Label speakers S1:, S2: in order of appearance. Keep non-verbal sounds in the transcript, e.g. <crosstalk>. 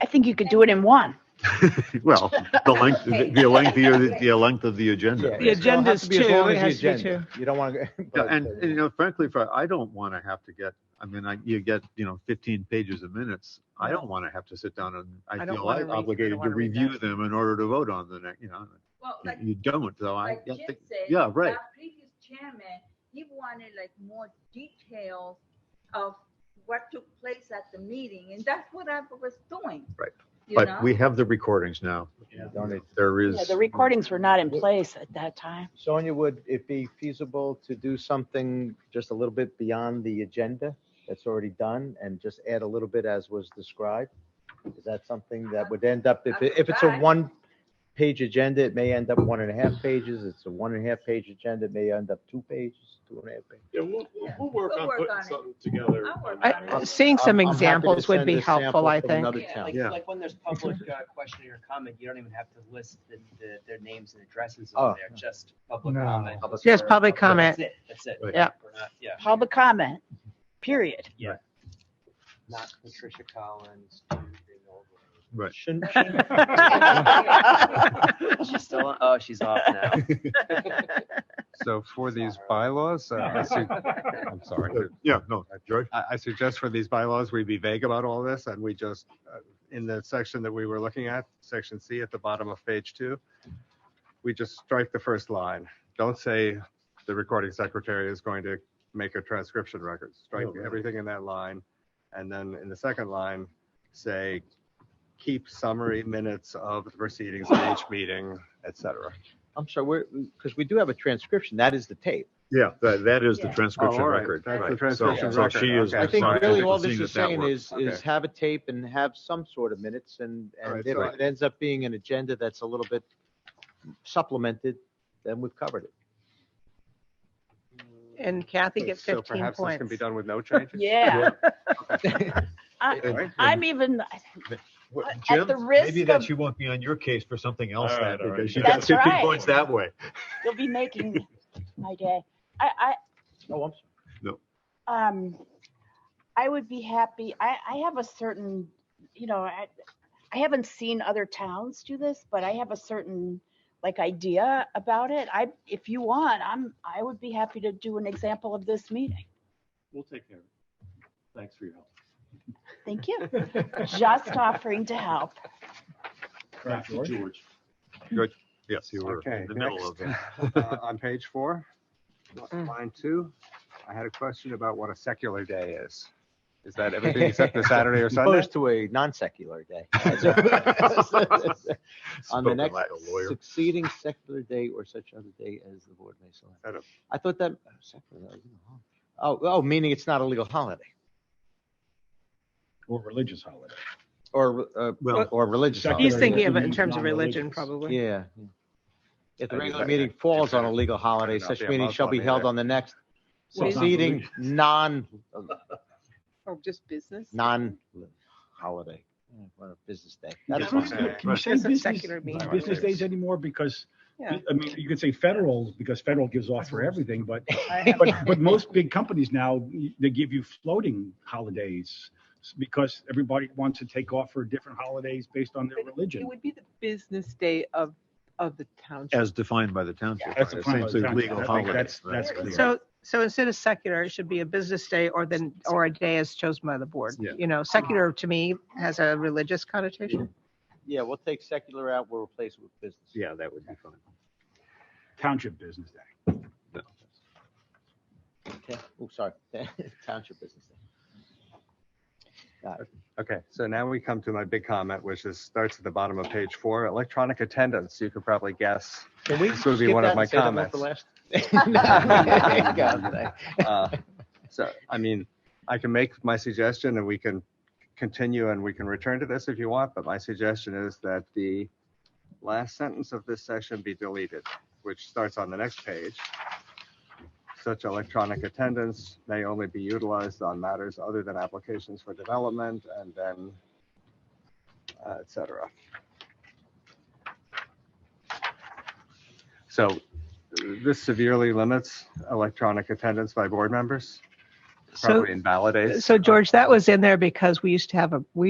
S1: I think you could do it in one.
S2: <laughs> Well, the length, the the lengthier, the- the length of the
S3: Yeah,
S2: agenda.
S3: it's gonna have
S4: agenda's
S3: to be as
S4: two,
S3: long
S4: it
S3: as the
S4: has to be
S3: agenda. You <laughs> don't want
S2: Yeah,
S3: to.
S2: And, and, you know, frankly, for, I don't want to have to get, I mean, I, you get, you know, fifteen pages of minutes. I don't want to have to sit down and
S4: I
S2: I
S4: don't
S2: feel
S4: wanna read- I don't
S2: obligated to
S4: wanna read
S2: review
S4: that.
S2: them in order to vote on the next, you know.
S5: Well,
S2: you-
S5: like,
S2: You don't, though. I,
S5: like
S2: Mm-hmm. I
S5: Jim
S2: think-
S5: said,
S2: yeah, right.
S5: our previous chairman, he wanted like more details of what took place at the meeting, and that's what I was doing.
S2: Right.
S5: You know?
S2: but we have the recordings now.
S3: Don't it-
S2: There is.
S1: Yeah, the recordings were not in place at that time.
S3: Sonia, would it be feasible to do something just a little bit beyond the agenda that's already done and just add a little bit as was described? Is that something that would end up, if, it- if it's a
S5: Right.
S3: one-page agenda, it may end up one and a half pages. It's a one and a half page agenda, it may end up two pages, two and a half pages.
S6: Yeah, we'll, we'll- we'll work
S5: We'll
S6: on
S5: work
S6: putting
S5: on it.
S6: something together.
S5: I'll work on it.
S4: I- Seeing some
S3: I'm- I'm happy to
S4: examples would
S3: send
S4: be
S3: a sample
S4: helpful, I
S3: from
S4: think.
S3: another
S7: Yeah,
S3: town.
S7: Like,
S2: Yeah.
S7: like when there's public uh, question or comment, you don't even have to list the, the, their names and addresses
S3: Oh.
S7: on there, just public
S8: No.
S7: comment.
S3: Public
S4: Yes, public comment.
S7: That's it, that's it.
S2: Right.
S4: Yep.
S7: We're not- Yeah.
S1: Public comment, period.
S7: Not Patricia Collins.
S2: Right.
S3: Shouldn't-
S7: She's still, on- oh, she's off now.
S9: So for these bylaws, uh,
S2: <laughs>
S9: I su- I'm sorry.
S2: Yeah, no, George.
S9: I, I suggest for these bylaws, we be vague about all this and we just, uh, in the section that we were looking at, section C at the bottom of page two, we just strike the first line. Don't say the recording secretary is going to make a transcription record. Strike
S2: Oh, really?
S9: everything in that line. And then in the second line, say, keep summary minutes of the proceedings of each meeting, et cetera.
S3: I'm sorry, we're, because we do have a transcription. That is the tape.
S2: Yeah, that, that is the
S5: Yeah.
S2: transcription
S9: Oh, all right.
S2: record.
S9: That's the
S2: Right. So-
S9: transcription
S2: So she
S9: record.
S2: is.
S9: Okay.
S3: I think
S2: responsible
S3: really
S2: for
S3: all this
S2: seeing
S3: is
S2: that that
S3: saying
S2: works.
S3: is, is
S9: Okay.
S3: have a tape and have some sort of minutes and, and
S9: Alright,
S3: if
S9: so-
S3: it ends up being an agenda that's a little bit supplemented, then we've covered it.
S9: <laughs>
S4: And Kathy gets
S9: So
S4: 15
S9: Perhaps this can be
S4: points.
S9: done with
S1: <laughs>
S9: no changes?
S1: Yeah,
S9: All
S1: <laughs> I,
S9: right.
S1: I'm even,
S2: What,
S1: At
S2: Jim,
S1: the risk
S2: maybe that
S1: of-
S2: she won't be on your case for something else
S6: All
S2: then,
S6: right, all right.
S2: because she got
S1: That's
S2: fifty
S1: right.
S2: points that way.
S1: you'll be making my day. I, I,
S3: Oh, I'm
S1: um, I would be happy. I, I have a certain, you know, I, I haven't seen other towns do this, but I have a certain like idea about it. I, if you want, I'm, I would be happy to do an example of this meeting.
S6: We'll take care of it. Thanks for your help.
S1: Thank you. Just offering to help.
S6: Back to George.
S2: Yes, you were
S9: Okay,
S2: in the middle <laughs> of it.
S9: next, uh, On page four,
S1: Mm.
S9: line two, I had a question about what a secular day is. Is that everything except the Saturday
S3: <laughs>
S1: <laughs>
S9: or Sunday?
S3: Opposed to a non-secular
S9: <laughs>
S3: day. On the
S2: Spoken
S3: next
S2: like a lawyer.
S3: succeeding secular day or such other day as the board may
S9: I don't-
S3: select. I thought that, oh, secular, that was a hol- oh, oh, meaning it's not a legal holiday
S8: Or religious holiday.
S3: or, uh,
S2: Well-
S3: or religious
S8: Secular-
S3: holiday.
S4: He's thinking of it in
S8: Yeah.
S4: terms of religion,
S8: Non-religious.
S4: probably.
S3: Yeah. yeah. If the
S9: I mean,
S3: regular
S9: that-
S3: meeting
S9: that-
S3: falls
S9: that-
S3: on a legal holiday,
S9: not
S3: such
S9: be a
S3: meeting shall be
S9: Muslim
S3: held
S9: either.
S3: on the next
S8: So it's not
S3: succeeding
S8: religious.
S3: non,
S4: Or just business.
S3: non-holiday, what a business day. That's fine.
S8: Can we-
S9: fine.
S8: Can you say
S4: Doesn't
S8: business,
S4: secular mean-
S8: business days anymore? Because,
S4: Yeah.
S8: I mean, you could say federal, because federal gives off for everything, but, but, but most big companies now, they give you floating holidays because everybody wants to take off for different holidays based on their
S10: It
S8: religion.
S10: would be the business day of, of the township.
S2: As defined by the township.
S8: That's
S2: right?
S8: the point of the
S2: Essentially legal
S8: contract. I think
S2: holiday.
S8: that's-
S2: right?
S8: that's clear.
S4: So, so instead of secular, it should be a business day or then, or a day as chosen by the board.
S2: Yeah.
S4: You know, secular to me has a religious connotation.
S3: Yeah, we'll take secular out, we'll replace it with business.
S2: Yeah, that would be fine.
S8: Township business day.
S3: Okay. Oh, sorry, <laughs> township business day.
S9: Okay, so now we come to my big comment, which is, starts at the bottom of page four, electronic attendance. You could probably guess.
S3: Can we
S9: This would be
S3: skip
S9: one of
S3: that
S9: my
S3: and say that one for <laughs> last? There you go.
S9: Uh,
S1: <laughs>
S9: So, I mean, I can make my suggestion and we can continue and we can return to this if you want, but my suggestion is that the last sentence of this section be deleted, which starts on the next page. Such electronic attendance may only be utilized on matters other than applications for development and then uh, et cetera. So this severely limits electronic attendance by board members,
S4: So,
S9: probably invalidates.
S4: so George, that was in there because we used to have a, we